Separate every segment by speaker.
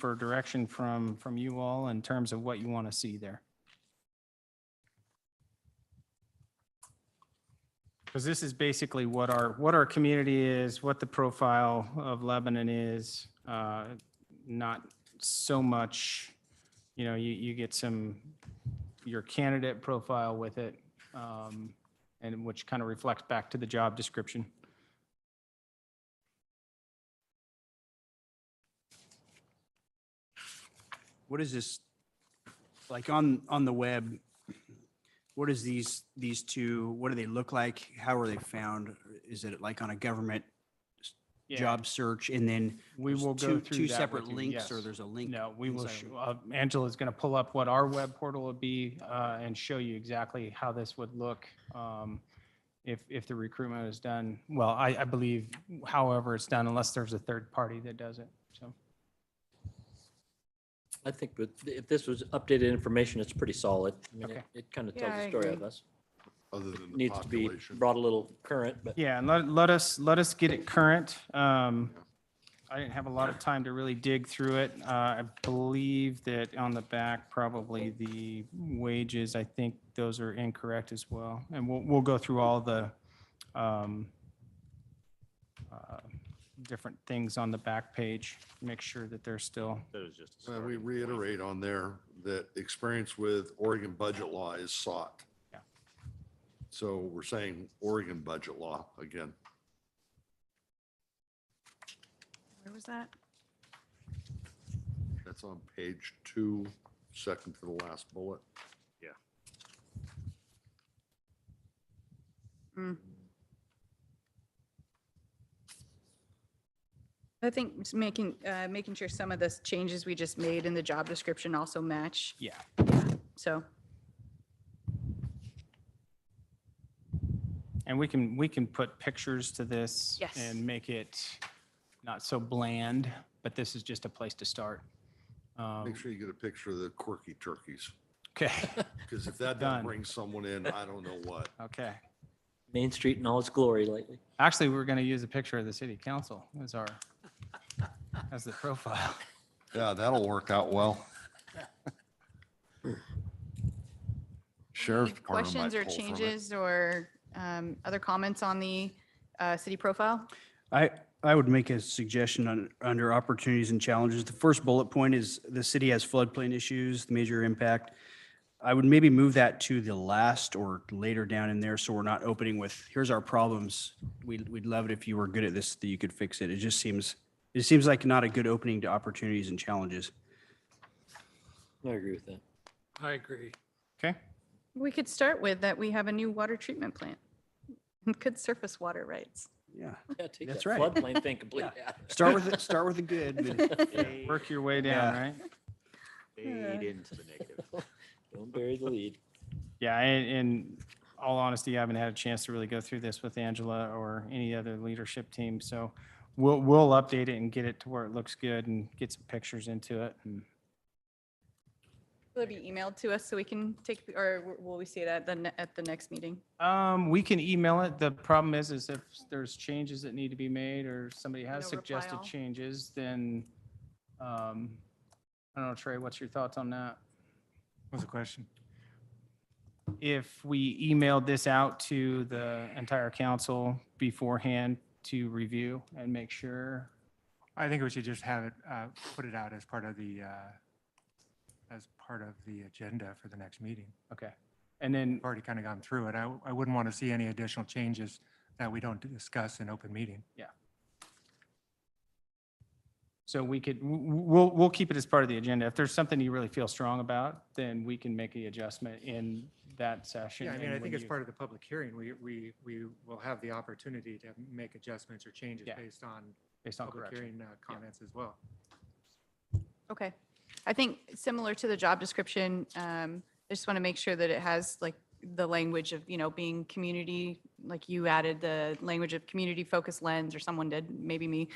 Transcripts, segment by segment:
Speaker 1: for direction from, from you all in terms of what you want to see there. Because this is basically what our, what our community is, what the profile of Lebanon is, uh, not so much, you know, you, you get some, your candidate profile with it, um, and which kind of reflects back to the job description.
Speaker 2: What is this, like on, on the web, what is these, these two, what do they look like? How are they found? Is it like on a government job search and then?
Speaker 1: We
Speaker 2: there's
Speaker 1: will go
Speaker 2: two-
Speaker 1: through
Speaker 2: Two
Speaker 1: that
Speaker 2: separate
Speaker 1: with you,
Speaker 2: links or
Speaker 1: yes.
Speaker 2: there's a link?
Speaker 1: No, we will,
Speaker 2: inside
Speaker 1: sh-
Speaker 2: of-
Speaker 1: uh, Angela's going to pull up what our web portal would be uh, and show you exactly how this would look um, if, if the recruitment is done. Well, I, I believe however it's done, unless there's a third party that does it, so.
Speaker 3: I think, but if this was updated information, it's pretty solid. I mean,
Speaker 1: Okay.
Speaker 3: it- It kind of
Speaker 4: Yeah,
Speaker 3: tells
Speaker 4: I
Speaker 3: the story
Speaker 4: agree.
Speaker 3: of us.
Speaker 5: other than the
Speaker 3: Needs to be
Speaker 5: population.
Speaker 3: brought a little current, but
Speaker 1: Yeah, and let, let us, let us get it current. Um, I didn't have a lot of time to really dig through it. Uh, I believe that on the back, probably the wages, I think those are incorrect as well. And we'll, we'll go through all the, um, uh, different things on the back page, make sure that they're still,
Speaker 5: And we reiterate on there that experience with Oregon budget law is sought.
Speaker 1: Yeah.
Speaker 5: So we're saying Oregon budget law again.
Speaker 4: Where was that?
Speaker 5: That's on page two, second to the last bullet.
Speaker 4: Mm. I think s- making, uh, making sure some of the s- changes we just made in the job description also match,
Speaker 1: yeah.
Speaker 4: so.
Speaker 1: And we can, we can put pictures to this.
Speaker 4: Yes.
Speaker 1: And make it not so bland, but this is just a place to start. Um,
Speaker 5: Make sure you get a picture of the quirky turkeys,
Speaker 1: Okay,
Speaker 5: because if that
Speaker 1: Done.
Speaker 5: doesn't bring someone in, I don't know what.
Speaker 1: okay.
Speaker 3: Main Street in all its glory lately.
Speaker 1: Actually, we we're going to use a picture of the city council as our, as the profile.
Speaker 5: Yeah, that'll work out well. Sheriff's
Speaker 4: Any
Speaker 5: Department might
Speaker 4: Questions or
Speaker 5: pull from it.
Speaker 4: changes or um, other comments on the uh, city profile?
Speaker 2: I, I would make a suggestion on, under opportunities and challenges. The first bullet point is the city has floodplain issues, the major impact. I would maybe move that to the last or later down in there, so we're not opening with, here's our problems. We'd, we'd love it if you were good at this, that you could fix it. It just seems, it seems like not a good opening to opportunities and challenges.
Speaker 3: I agree with that.
Speaker 6: I agree.
Speaker 1: Okay,
Speaker 4: We could start with that we have a new water treatment plant. Good surface water rights.
Speaker 2: Yeah.
Speaker 3: Yeah, take
Speaker 2: That's
Speaker 3: that
Speaker 2: right.
Speaker 3: Floodplain thing completely out.
Speaker 2: Start with, the- start with the good. but-
Speaker 1: work your way down,
Speaker 2: Yeah.
Speaker 1: right?
Speaker 4: Hmm.
Speaker 7: Fade into the negative.
Speaker 3: Don't bury the lead.
Speaker 1: Yeah, and in all honesty, I haven't had a chance to really go through this with Angela or any other leadership team. So we'll, we'll update it and get it to where it looks good and get some pictures into it. and-
Speaker 4: Will it be emailed to us so we can take, or w- will we see it at the, ne- at the next meeting?
Speaker 1: Um, we can email it. The problem is, is if there's changes that need to be made or somebody has
Speaker 4: No reply
Speaker 1: suggested
Speaker 4: all.
Speaker 1: changes, then, um, I don't know, Trey, what's your thoughts on that?
Speaker 8: What's the question?
Speaker 1: if we emailed this out to the entire council beforehand to review and make sure.
Speaker 8: I think we should just have it, uh, put it out as part of the, uh, as part of the agenda for the next meeting.
Speaker 1: Okay. And then,
Speaker 8: We've already kind of gone through it. I, I wouldn't want to see any additional changes that we don't discuss in open meeting.
Speaker 1: so we could, w- w- we'll, we'll keep it as part of the agenda. If there's something you really feel strong about, then we can make the adjustment in that session.
Speaker 8: Yeah, I mean,
Speaker 1: and
Speaker 8: I
Speaker 1: when
Speaker 8: think it's
Speaker 1: you-
Speaker 8: part of the public hearing. We, we, we will have the opportunity to make adjustments or changes
Speaker 1: Yeah.
Speaker 8: based on
Speaker 1: Based on
Speaker 8: public
Speaker 1: correction.
Speaker 8: hearing uh, comments as well.
Speaker 4: Okay. I think similar to the job description, um, I just want to make sure that it has like the language of, you know, being community, like you added the language of community focused lens or someone did, maybe me.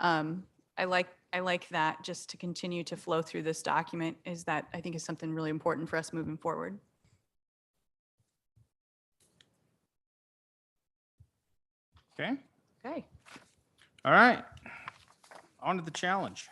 Speaker 4: Um, I like, I like that just to continue to flow through this document is that I think is something really important for us moving forward.
Speaker 1: Okay.
Speaker 4: Okay.
Speaker 1: All right. On to the challenge.